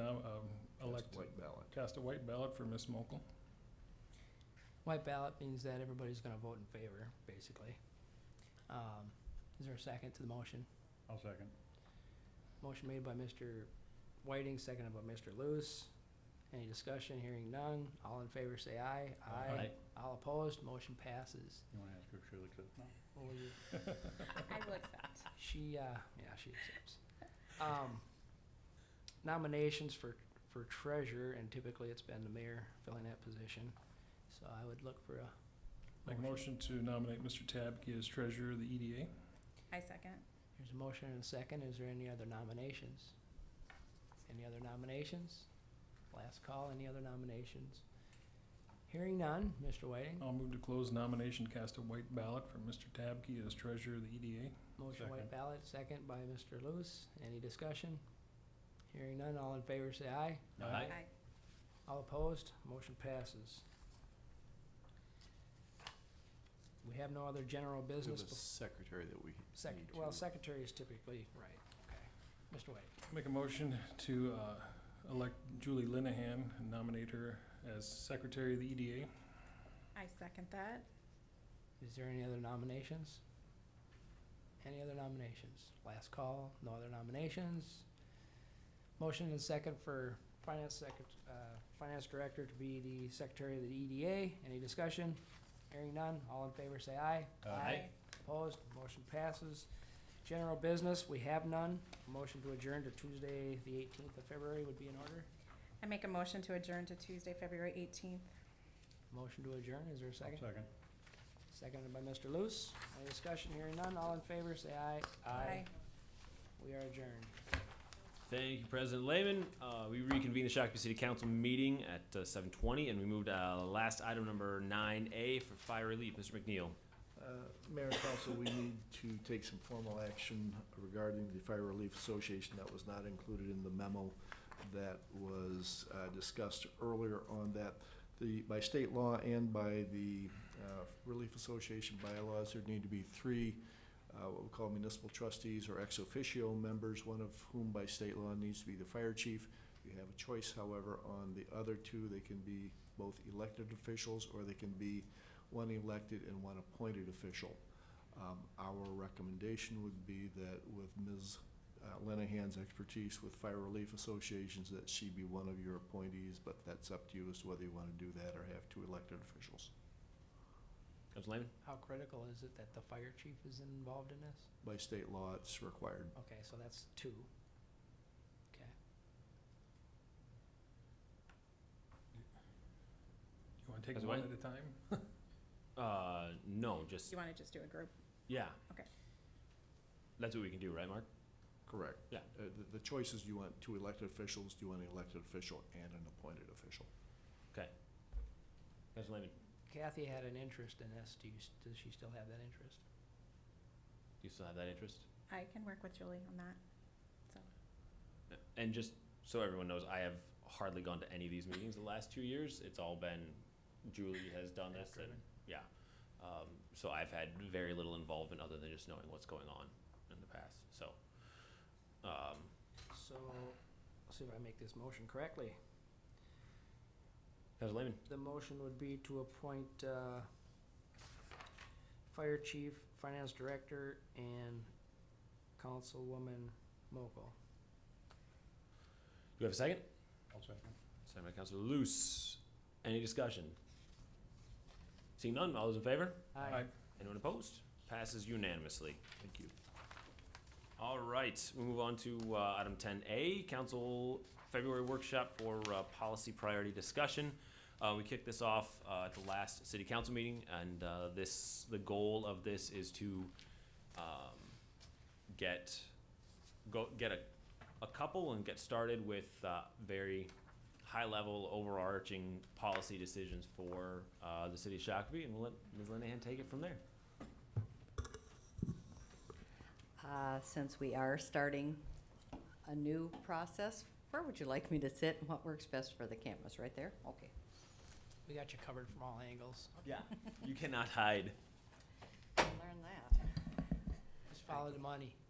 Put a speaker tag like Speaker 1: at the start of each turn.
Speaker 1: um, cast a white ballot for Ms. Mokel.
Speaker 2: White ballot means that everybody's gonna vote in favor, basically. Um, Is there a second to the motion?
Speaker 3: I'll second.
Speaker 2: Motion made by Mr. Whiting, seconded by Mr. Luce. Any discussion? Hearing none. All in favor, say aye.
Speaker 3: Aye.
Speaker 2: All opposed, motion passes.
Speaker 3: You wanna ask her if she looks at it?
Speaker 2: What were you-
Speaker 4: I will accept.
Speaker 2: She, uh, yeah, she accepts. Um, nominations for, for treasurer, and typically it's been the mayor filling that position. So I would look for a,
Speaker 1: Make a motion to nominate Mr. Tabke as treasurer of the E EDA.
Speaker 4: I second.
Speaker 2: there's a motion and a second. Is there any other nominations? Any other nominations? Last call, any other nominations? Hearing none. Mr. Whiting?
Speaker 1: I'll move to close nomination, cast a white ballot for Mr. Tabke as treasurer of the E EDA.
Speaker 2: Motion white
Speaker 3: Second.
Speaker 2: ballot, second by Mr. Lewis. Any discussion? Hearing none. All in favor, say aye.
Speaker 1: Aye.
Speaker 4: Aye.
Speaker 2: All opposed, motion passes. We have no other general
Speaker 5: To
Speaker 2: business.
Speaker 5: the secretary that we
Speaker 2: Sec-
Speaker 5: need
Speaker 2: well,
Speaker 5: to-
Speaker 2: secretary is typically, right, okay. Mr. Wade,
Speaker 1: Make a motion to uh, elect Julie Linehan and nominate her as secretary of the E EDA.
Speaker 4: I second that.
Speaker 2: is there any other nominations? Any other nominations? Last call, no other nominations. Motion and second for finance secret, uh, finance director to be the secretary of the EDA. Any discussion? Hearing none, all in favor say aye. Opposed, motion passes. General business, we have none. Motion to adjourn to Tuesday, the eighteenth of February would be in order.
Speaker 4: I make a motion to adjourn to Tuesday, February eighteenth.
Speaker 2: Motion to adjourn, is there a second?
Speaker 3: Second.
Speaker 2: Seconded by Mr. Luce. Any discussion, hearing none, all in favor, say aye. We are adjourned.
Speaker 6: Thank you, President Lehman. Uh, we reconvene the Shakopee City Council meeting at uh, 7:20, and we moved uh, last item number 9A for fire relief. Mr. McNeil.
Speaker 5: Uh, Mayor and council, we need to take some formal action regarding the Fire Relief Association that was not included in the memo that was uh, discussed earlier on that. The, by state law and by the uh, Relief Association bylaws, there need to be three, uh, what we call municipal trustees or ex officio members, one of whom by state law needs to be the fire chief. You have a choice, however, on the other two. They can be both elected officials or they can be one elected and one appointed official. Um, Our recommendation would be that with Ms. Lenahan's expertise with fire relief associations, that she be one of your appointees, but that's up to you as to whether you want to do that or have two elected officials.
Speaker 6: Council Lehman.
Speaker 2: How critical is it that the fire chief is involved in this?
Speaker 5: By state law, it's required.
Speaker 2: Okay, so that's two. Okay.
Speaker 1: You want to take
Speaker 6: That's
Speaker 1: one
Speaker 6: right.
Speaker 1: at a time?
Speaker 6: Uh, no, just
Speaker 4: You wanna just do a group?
Speaker 6: yeah.
Speaker 4: Okay.
Speaker 6: That's what we can do, right, Mark?
Speaker 5: Correct.
Speaker 6: Yeah.
Speaker 5: Uh, the- The choice is, do you want two elected officials, do you want an elected official and an appointed official?
Speaker 6: Council Lehman,
Speaker 2: Kathy had an interest in this. Do you, s- does she still have that interest?
Speaker 6: do you still have that interest?
Speaker 4: I can work with Julie on that.
Speaker 6: And just so everyone knows, I have hardly gone to any of these meetings the last two years. It's all been Julie has done this, and
Speaker 2: Driven.
Speaker 6: yeah. Um, so I've had very little involvement other than just knowing what's going on in the past. So. Um,
Speaker 2: So, let's see if I make this motion correctly.
Speaker 6: Council Lehman.
Speaker 2: The motion would be to appoint, uh, Fire Chief, Finance Director, and Councilwoman Mokel.
Speaker 6: Do you have a second?
Speaker 3: I'll second.
Speaker 6: Second by Councilor Luce. Any discussion? Seeing none, all those in favor?
Speaker 1: Aye.
Speaker 6: Anyone opposed? Passes unanimously.
Speaker 5: Thank you.
Speaker 6: All right, we move on to uh, item ten A, council February workshop for uh, policy priority discussion. Uh, We kicked this off uh, at the last city council meeting, and uh, this, the goal of this is to um, get, go, get a, a couple and get started with uh, very high-level overarching policy decisions for uh, the city of Shakopee, and we'll let Ms. Linehan take it from there.
Speaker 7: Uh, Since we are starting a new process, where would you like me to sit and what works best for the cameras? Right there? Okay.
Speaker 2: We got you covered from all angles.
Speaker 6: Yeah. You cannot hide.
Speaker 7: Learn that.
Speaker 2: Just follow the money.